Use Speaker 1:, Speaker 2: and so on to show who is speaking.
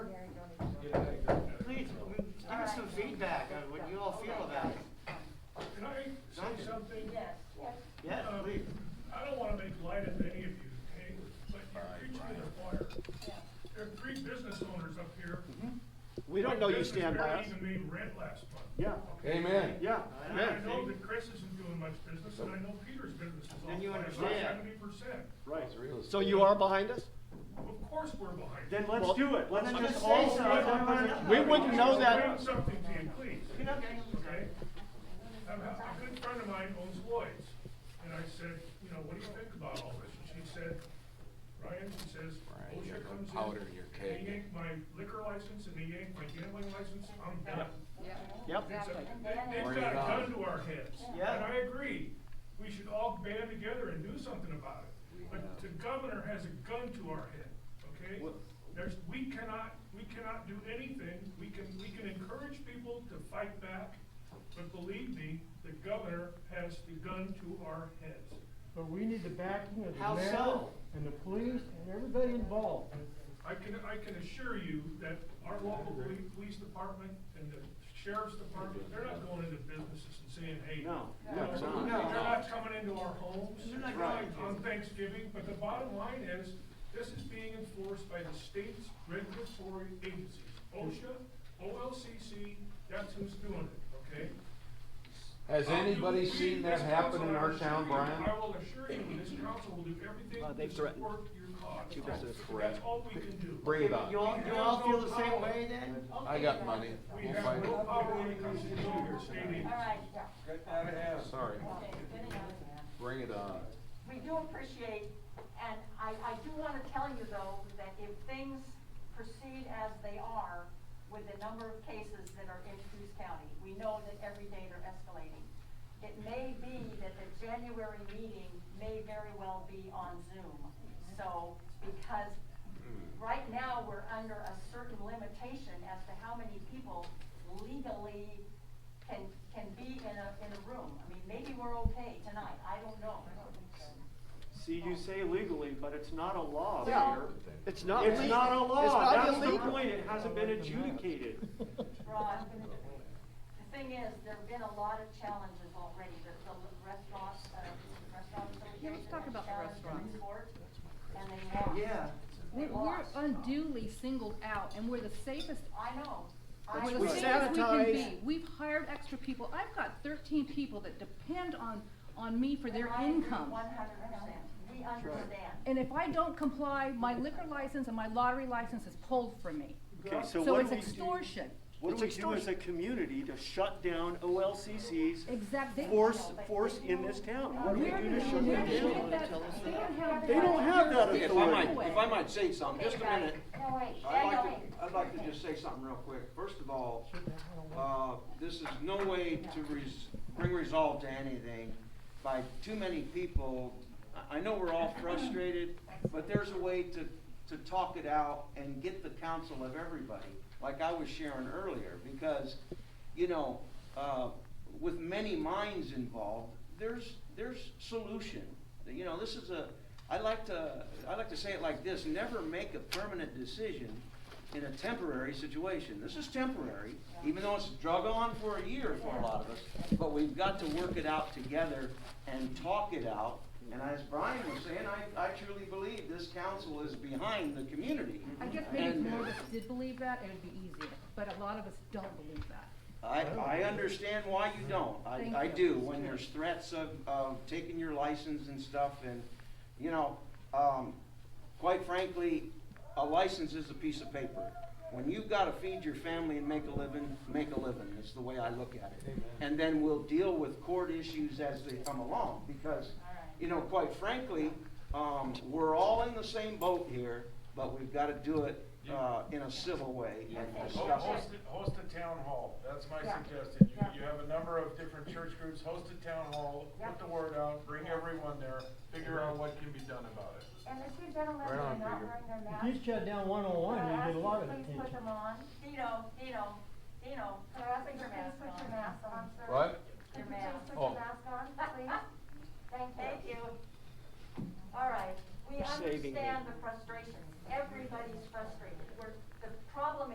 Speaker 1: Uh,
Speaker 2: They don't know you stand by us.
Speaker 3: Even made red last month.
Speaker 2: Yeah.
Speaker 4: Amen.
Speaker 2: Yeah,
Speaker 3: And I
Speaker 2: amen.
Speaker 3: know that Chris isn't doing much business, and I know Peter's business is
Speaker 2: Then
Speaker 3: off
Speaker 2: you
Speaker 3: by about
Speaker 2: understand.
Speaker 3: seventy percent.
Speaker 2: Right.
Speaker 4: It's real
Speaker 2: So
Speaker 4: estate.
Speaker 2: you are behind us?
Speaker 3: Of course we're behind.
Speaker 1: Then
Speaker 2: Well,
Speaker 1: let's do it, let's
Speaker 2: then
Speaker 1: just
Speaker 2: just
Speaker 1: all
Speaker 2: say so.
Speaker 1: do it one by one.
Speaker 2: We wouldn't know that-
Speaker 3: Explain something to you, please. Okay? A a good friend of mine owns Lloyd's, and I said, you know, what do you think about all this? And she said, Ryan, she says,
Speaker 4: Ryan, you
Speaker 3: OSHA
Speaker 4: gotta
Speaker 3: comes in.
Speaker 4: powder your
Speaker 3: and
Speaker 4: keg.
Speaker 3: They yank my liquor license and they yank my gambling license, I'm done.
Speaker 2: Yep.
Speaker 3: It's a- they-
Speaker 4: Bring
Speaker 3: They've
Speaker 4: it
Speaker 3: got a
Speaker 4: on.
Speaker 3: gun to our heads.
Speaker 2: Yeah.
Speaker 3: And I agree, we should all band together and do something about it. But the governor has a gun to our head, okay?
Speaker 2: What-
Speaker 3: There's, we cannot, we cannot do anything, we can, we can encourage people to fight back, but believe me, the governor has the gun to our heads.
Speaker 5: But we need the backing of
Speaker 1: How
Speaker 5: the mayor
Speaker 1: so?
Speaker 5: and the police and everybody involved.
Speaker 3: I can, I can assure you that our local poli- police department and the sheriff's department, they're not going into businesses and saying, hey.
Speaker 2: No,
Speaker 3: you
Speaker 2: no,
Speaker 3: know,
Speaker 2: they're not.
Speaker 3: They're not coming into our homes
Speaker 1: They're not going to.
Speaker 3: on Thanksgiving, but the bottom line is, this is being enforced by the state's regulatory agencies, OSHA, OLCC, that's who's doing it, okay?
Speaker 4: Has
Speaker 3: I'll do-
Speaker 4: anybody
Speaker 3: we,
Speaker 4: seen that
Speaker 3: this
Speaker 4: happen
Speaker 3: council,
Speaker 4: in
Speaker 3: I
Speaker 4: our
Speaker 3: assure
Speaker 4: town,
Speaker 3: you,
Speaker 4: Brian?
Speaker 3: I will assure you, this council will do everything
Speaker 2: Uh,
Speaker 3: to
Speaker 2: they've threatened.
Speaker 3: support your cause.
Speaker 2: Two percent.
Speaker 3: That's all we can do.
Speaker 4: Bring it on.
Speaker 1: You all, you all feel the same way then?
Speaker 4: I got money.
Speaker 3: We
Speaker 4: We'll
Speaker 3: have
Speaker 4: fight
Speaker 3: no
Speaker 4: it.
Speaker 3: power when it comes to your stadium.
Speaker 6: All right, yeah,
Speaker 4: Sorry.
Speaker 6: okay, good enough.
Speaker 4: Bring it on.
Speaker 6: We do appreciate, and I, I do want to tell you though, that if things proceed as they are with the number of cases that are in Coos County, we know that every day they're escalating. It may be that the January meeting may very well be on Zoom. So, because right now, we're under a certain limitation as to how many people legally can, can be in a, in a room. I mean, maybe we're okay tonight, I don't know.
Speaker 1: See, you say legally, but it's not a law,
Speaker 2: Yeah.
Speaker 1: Mayor.
Speaker 2: It's not.
Speaker 1: It's
Speaker 2: le-
Speaker 1: not a
Speaker 2: It's
Speaker 1: law,
Speaker 2: not
Speaker 1: that's the
Speaker 2: illegal.
Speaker 1: point, it hasn't been adjudicated.
Speaker 6: Ron, the thing is, there've been a lot of challenges already, the, the restaurants, uh, restaurant association.
Speaker 7: Yeah, let's talk about the
Speaker 6: has challenged the
Speaker 7: restaurants.
Speaker 6: report, And they lost.
Speaker 1: Yeah.
Speaker 7: We're,
Speaker 6: They
Speaker 7: we're
Speaker 6: lost.
Speaker 7: unduly singled out, and we're the safest,
Speaker 6: I know. I
Speaker 7: we're
Speaker 2: We
Speaker 7: the
Speaker 6: agree.
Speaker 7: safest we can be.
Speaker 2: sabotage.
Speaker 7: We've hired extra people. I've got thirteen people that depend on, on me for their
Speaker 6: I agree 100%.
Speaker 7: income.
Speaker 6: we understand.
Speaker 7: And if I don't comply, my liquor license and my lottery license is pulled from me.
Speaker 1: Okay, so
Speaker 7: So
Speaker 1: what
Speaker 7: it's
Speaker 1: do we do?
Speaker 7: extortion.
Speaker 1: What do we
Speaker 2: It's
Speaker 1: do as a
Speaker 2: extortion.
Speaker 1: community to shut down OLCC's
Speaker 7: Exactly.
Speaker 1: force, force in this town? What do we
Speaker 7: Where
Speaker 1: do
Speaker 7: did,
Speaker 1: to shut
Speaker 7: where
Speaker 1: them
Speaker 7: did you
Speaker 1: down?
Speaker 7: get that, they don't have.
Speaker 1: They don't have that
Speaker 7: They
Speaker 8: If I might,
Speaker 1: authority.
Speaker 8: if I might say something, Um, just a minute,
Speaker 6: No, wait,
Speaker 8: I'd
Speaker 6: no,
Speaker 8: like
Speaker 6: wait.
Speaker 8: to, I'd like to just say something real quick. First of all, uh, this is no way to res, bring resolve to anything by too many people. I, I know we're all frustrated, but there's a way to, to talk it out and get the counsel of everybody, like I was sharing earlier, because, you know, uh, with many minds involved, there's, there's solution. You know, this is a, I like to, I like to say it like this, never make a permanent decision in a temporary situation. This is temporary, even though it's drug on for a year for a lot of us, but we've got to work it out together and talk it out. And as Brian was saying, I, I truly believe this council is behind the community.
Speaker 7: I guess maybe if
Speaker 8: And-
Speaker 7: more of us did believe that, it would be easier, but a lot of us don't believe that.
Speaker 8: I, I understand why you don't.
Speaker 7: Thank
Speaker 8: I, I
Speaker 7: you.
Speaker 8: do, when there's threats of, of taking your license and stuff and, you know, um, quite frankly, a license is a piece of paper. When you've gotta feed your family and make a living, make a living, is the way I look at it. And then we'll deal with court issues as they come along, because, you know, quite frankly, um, we're all in the same boat here, but we've gotta do it, uh, in a civil way and discuss it.
Speaker 9: Host, a- host a town hall, that's my
Speaker 6: Yeah.
Speaker 9: suggestion,
Speaker 6: Yeah.
Speaker 9: you, you have a number of different church groups, host a town hall,
Speaker 6: Yeah.
Speaker 9: put the word out, bring everyone there, figure out what can be done about it.
Speaker 6: And the two gentlemen that are not wearing their masks.
Speaker 5: If you shut down one on one,
Speaker 6: Could I
Speaker 5: you
Speaker 6: ask
Speaker 5: get a lot
Speaker 6: you
Speaker 5: of
Speaker 6: please put
Speaker 5: attention.
Speaker 6: them on? Dino, Dino, Dino, could I ask you please put your mask on, sir?
Speaker 4: What?
Speaker 6: Your mask.
Speaker 4: Oh.
Speaker 6: Thank you. All right, we
Speaker 2: You're saving me.
Speaker 6: understand the frustration. Everybody's frustrated. We're,